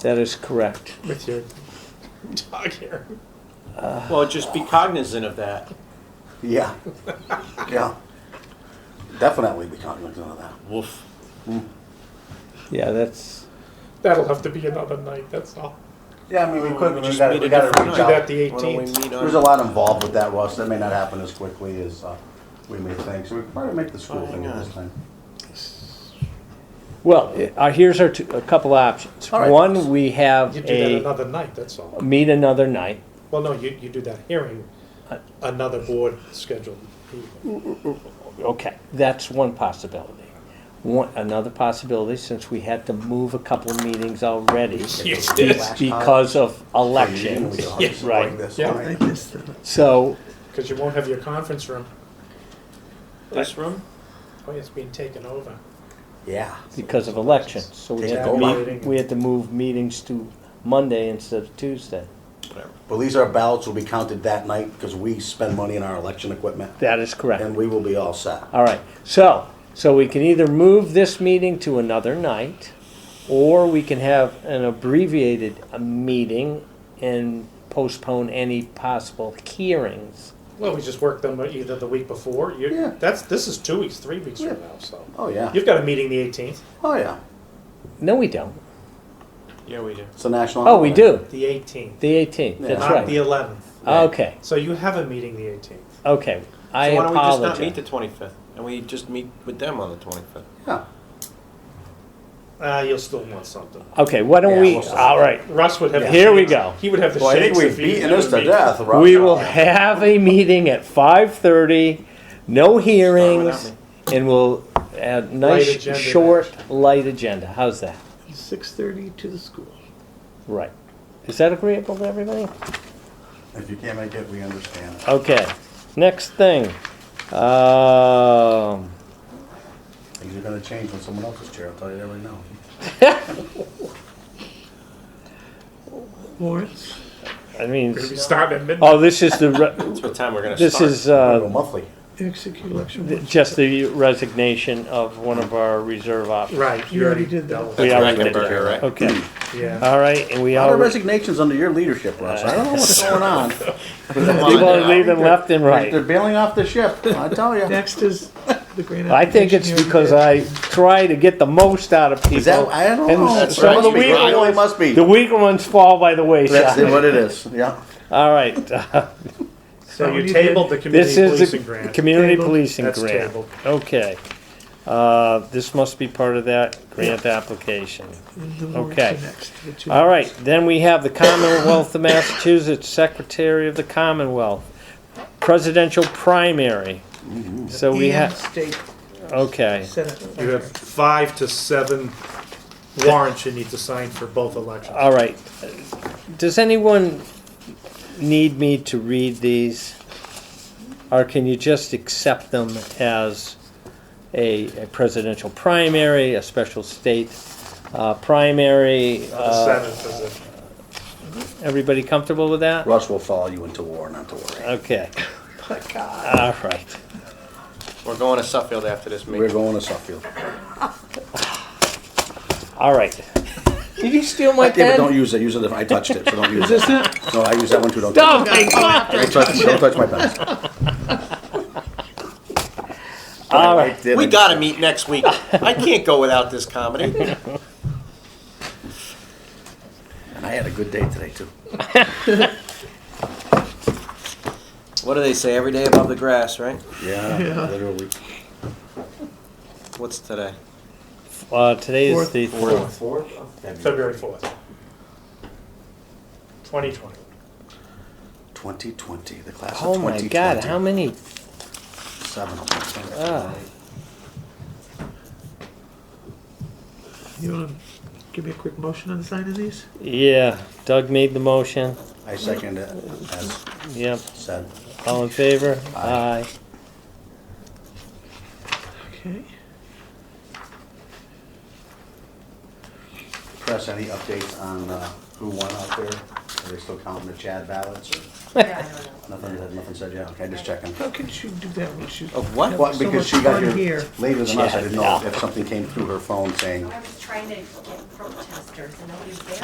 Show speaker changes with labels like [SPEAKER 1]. [SPEAKER 1] That is correct.
[SPEAKER 2] with your dog here.
[SPEAKER 3] Well, just be cognizant of that.
[SPEAKER 4] Yeah. Yeah. Definitely be cognizant of that.
[SPEAKER 3] Woof.
[SPEAKER 1] Yeah, that's,
[SPEAKER 2] That'll have to be another night, that's all.
[SPEAKER 4] Yeah, I mean, we
[SPEAKER 3] We
[SPEAKER 4] could, but we
[SPEAKER 3] just
[SPEAKER 4] gotta,
[SPEAKER 3] need
[SPEAKER 4] we
[SPEAKER 3] a
[SPEAKER 4] gotta
[SPEAKER 3] different
[SPEAKER 4] reach
[SPEAKER 2] Do that
[SPEAKER 4] out.
[SPEAKER 2] the
[SPEAKER 3] Why don't we
[SPEAKER 2] eighteenth.
[SPEAKER 3] meet
[SPEAKER 4] There's a
[SPEAKER 3] on,
[SPEAKER 4] lot involved with that, Russ. That may not happen as quickly as, uh, we may think. So we could probably make the school
[SPEAKER 3] Hang
[SPEAKER 4] thing
[SPEAKER 3] on.
[SPEAKER 4] this time.
[SPEAKER 1] well, uh, here's our, two- a couple options.
[SPEAKER 4] All right.
[SPEAKER 1] One, we have
[SPEAKER 2] You do that
[SPEAKER 1] a,
[SPEAKER 2] another night, that's all.
[SPEAKER 1] meet another night.
[SPEAKER 2] Well, no, you, you do that hearing, another board scheduled meeting.
[SPEAKER 1] Okay, that's one possibility. One, another possibility, since we had to move a couple of meetings already
[SPEAKER 2] Yes,
[SPEAKER 1] because of
[SPEAKER 4] And we
[SPEAKER 1] elections.
[SPEAKER 4] could
[SPEAKER 2] Yeah,
[SPEAKER 4] bring
[SPEAKER 1] right.
[SPEAKER 4] this,
[SPEAKER 2] Yeah.
[SPEAKER 4] all right?
[SPEAKER 1] So,
[SPEAKER 2] Because you won't have your conference room.
[SPEAKER 3] this room?
[SPEAKER 2] Oh, it's being taken over.
[SPEAKER 4] Yeah.
[SPEAKER 1] because of elections, so we had to meet,
[SPEAKER 2] Take
[SPEAKER 1] we had to move meetings to Monday instead of Tuesday.
[SPEAKER 3] Whatever.
[SPEAKER 4] But these are ballots will be counted that night because we spend money on our election equipment
[SPEAKER 1] That is correct.
[SPEAKER 4] and we will be all set.
[SPEAKER 1] All right, so, so we can either move this meeting to another night, or we can have an abbreviated uh, meeting and postpone any possible hearings.
[SPEAKER 2] Well, we just work them either the week before, you,
[SPEAKER 4] Yeah.
[SPEAKER 2] that's, this is two weeks, three weeks
[SPEAKER 4] Yeah.
[SPEAKER 2] from now, so.
[SPEAKER 4] Oh, yeah.
[SPEAKER 2] You've got a meeting the eighteenth,
[SPEAKER 4] Oh, yeah.
[SPEAKER 1] No, we don't.
[SPEAKER 3] Yeah, we do.
[SPEAKER 4] It's a national.
[SPEAKER 1] Oh, we do,
[SPEAKER 2] the eighteenth,
[SPEAKER 1] the eighteenth, that's
[SPEAKER 2] not the
[SPEAKER 1] right. Uh,
[SPEAKER 2] eleventh.
[SPEAKER 1] Okay,
[SPEAKER 2] So you have a meeting the eighteenth.
[SPEAKER 1] okay, I
[SPEAKER 3] so why don't we just not meet
[SPEAKER 1] apologize.
[SPEAKER 3] the 25th and we just meet with them on the 25th?
[SPEAKER 4] Yeah.
[SPEAKER 2] Uh, you'll still want something.
[SPEAKER 1] Okay, why don't
[SPEAKER 4] Yeah,
[SPEAKER 1] we,
[SPEAKER 4] we'll see.
[SPEAKER 1] all right,
[SPEAKER 2] Russ would have.
[SPEAKER 1] Yeah. Here we go.
[SPEAKER 2] He would have the
[SPEAKER 4] Well, I think
[SPEAKER 2] shakes
[SPEAKER 4] we've
[SPEAKER 2] if he-
[SPEAKER 4] beaten
[SPEAKER 2] that
[SPEAKER 4] this
[SPEAKER 2] would
[SPEAKER 4] to
[SPEAKER 2] be-
[SPEAKER 4] death. Rob.
[SPEAKER 1] we will have a meeting at five thirty, no hearings,
[SPEAKER 3] me.
[SPEAKER 1] and we'll, a
[SPEAKER 2] Light
[SPEAKER 1] nice,
[SPEAKER 2] agenda
[SPEAKER 1] short, light agenda, how's that?
[SPEAKER 5] Six thirty to the school.
[SPEAKER 1] Right. Is that agreeable to everybody?
[SPEAKER 4] If you can't make it, we understand.
[SPEAKER 1] Okay. Next thing. Um,
[SPEAKER 4] Things are gonna change when someone else's chair, I'll tell you that right now.
[SPEAKER 1] Uh,
[SPEAKER 5] Warrants.
[SPEAKER 1] I mean,
[SPEAKER 2] We're gonna be starting at midnight.
[SPEAKER 1] oh, this is the, re-
[SPEAKER 3] That's what time we're going to
[SPEAKER 1] this
[SPEAKER 3] start.
[SPEAKER 1] is,
[SPEAKER 4] We're gonna go
[SPEAKER 1] uh,
[SPEAKER 4] monthly.
[SPEAKER 5] Execute election.
[SPEAKER 1] th-
[SPEAKER 5] warrants.
[SPEAKER 1] just the resignation of one of our reserve officers.
[SPEAKER 2] Right, you already did that.
[SPEAKER 1] We
[SPEAKER 3] That's
[SPEAKER 1] already did
[SPEAKER 3] Reckenberger,
[SPEAKER 1] that.
[SPEAKER 3] right?
[SPEAKER 1] Okay.
[SPEAKER 2] Yeah.
[SPEAKER 1] All right, and we
[SPEAKER 4] A lot of
[SPEAKER 1] already,
[SPEAKER 4] resignations under your leadership, Russ. I don't know what's going on.
[SPEAKER 1] Uh, people are leaving left and
[SPEAKER 4] They're
[SPEAKER 1] right.
[SPEAKER 4] bailing off the ship, I tell you.
[SPEAKER 5] Next is the grant.
[SPEAKER 1] I think it's
[SPEAKER 5] application
[SPEAKER 1] because
[SPEAKER 5] hearing.
[SPEAKER 1] I try to get the most out of
[SPEAKER 4] Is that,
[SPEAKER 1] people.
[SPEAKER 4] I don't
[SPEAKER 1] And
[SPEAKER 4] know.
[SPEAKER 1] some of the weaker
[SPEAKER 4] It really
[SPEAKER 1] ones-
[SPEAKER 4] must be.
[SPEAKER 1] The weaker ones fall by the
[SPEAKER 4] That's
[SPEAKER 1] wayside.
[SPEAKER 4] what it is, yeah.
[SPEAKER 1] All right.
[SPEAKER 2] So you tabled the community
[SPEAKER 1] This is the
[SPEAKER 2] policing grant.
[SPEAKER 1] community
[SPEAKER 5] Tabled.
[SPEAKER 1] policing
[SPEAKER 2] That's
[SPEAKER 1] grant.
[SPEAKER 2] tabled.
[SPEAKER 1] Okay. Uh, This must be part of that grant application.
[SPEAKER 5] The warrants
[SPEAKER 1] okay.
[SPEAKER 5] are next, the two
[SPEAKER 1] All right, then we have the Commonwealth of Massachusetts Secretary of the Commonwealth, presidential primary.
[SPEAKER 4] Mm-hmm.
[SPEAKER 1] So we
[SPEAKER 5] And
[SPEAKER 1] have,
[SPEAKER 5] state
[SPEAKER 1] okay,
[SPEAKER 5] senate.
[SPEAKER 2] You have five to seven warrants you need to sign for both elections.
[SPEAKER 1] all right. Does anyone need me to read these? Or can you just accept them as a a presidential primary, a special state uh, primary?
[SPEAKER 2] The
[SPEAKER 1] uh,
[SPEAKER 2] seventh is it.
[SPEAKER 1] Everybody comfortable with that?
[SPEAKER 4] Russ will follow you into war, not to worry.
[SPEAKER 1] Okay. All right.
[SPEAKER 3] We're going to Suffield after this meeting.
[SPEAKER 4] We're going to Suffield.
[SPEAKER 1] All right. Did you steal my
[SPEAKER 4] David, don't
[SPEAKER 1] pen?
[SPEAKER 4] use it, use it if I touched it, so don't use it.
[SPEAKER 5] Is this it?
[SPEAKER 4] No, I use that one too, don't touch
[SPEAKER 1] Oh my God!
[SPEAKER 4] it. Don't touch, don't touch my pens.
[SPEAKER 1] All right.
[SPEAKER 4] I did,
[SPEAKER 3] We
[SPEAKER 4] I-
[SPEAKER 3] got to meet next week. I can't go without this comedy.
[SPEAKER 4] And I had a good day today too.
[SPEAKER 3] What do they say? Every day above the grass, right?
[SPEAKER 4] Yeah, literally.
[SPEAKER 3] What's today?
[SPEAKER 1] Uh, today is
[SPEAKER 5] Fourth.
[SPEAKER 1] the fourth.
[SPEAKER 2] February fourth. Twenty twenty.
[SPEAKER 4] Twenty twenty, the class of
[SPEAKER 1] Oh my
[SPEAKER 4] twenty
[SPEAKER 1] God! How
[SPEAKER 4] twenty.
[SPEAKER 1] many?
[SPEAKER 4] Seven of them.
[SPEAKER 1] Uh,
[SPEAKER 5] You want to give me a quick motion on signing these?
[SPEAKER 1] yeah. Doug made the motion.
[SPEAKER 4] I second it, as
[SPEAKER 1] Yep.
[SPEAKER 4] said.
[SPEAKER 1] All in favor? Aye.
[SPEAKER 5] Okay.
[SPEAKER 4] Press, any updates on uh, who won out there? Are they still counting the Chad ballots or? Nothing, nothing said yet, okay, just checking.
[SPEAKER 5] How could she do that when she?
[SPEAKER 3] Of Oh, what?
[SPEAKER 4] Well,
[SPEAKER 5] So
[SPEAKER 4] because
[SPEAKER 5] much
[SPEAKER 4] she got
[SPEAKER 5] fun
[SPEAKER 4] here
[SPEAKER 5] here.
[SPEAKER 4] later than us, I
[SPEAKER 1] Chad,
[SPEAKER 4] didn't know
[SPEAKER 1] yeah.
[SPEAKER 4] if something came through her phone saying,
[SPEAKER 6] I was trying to get protesters and nobody's there.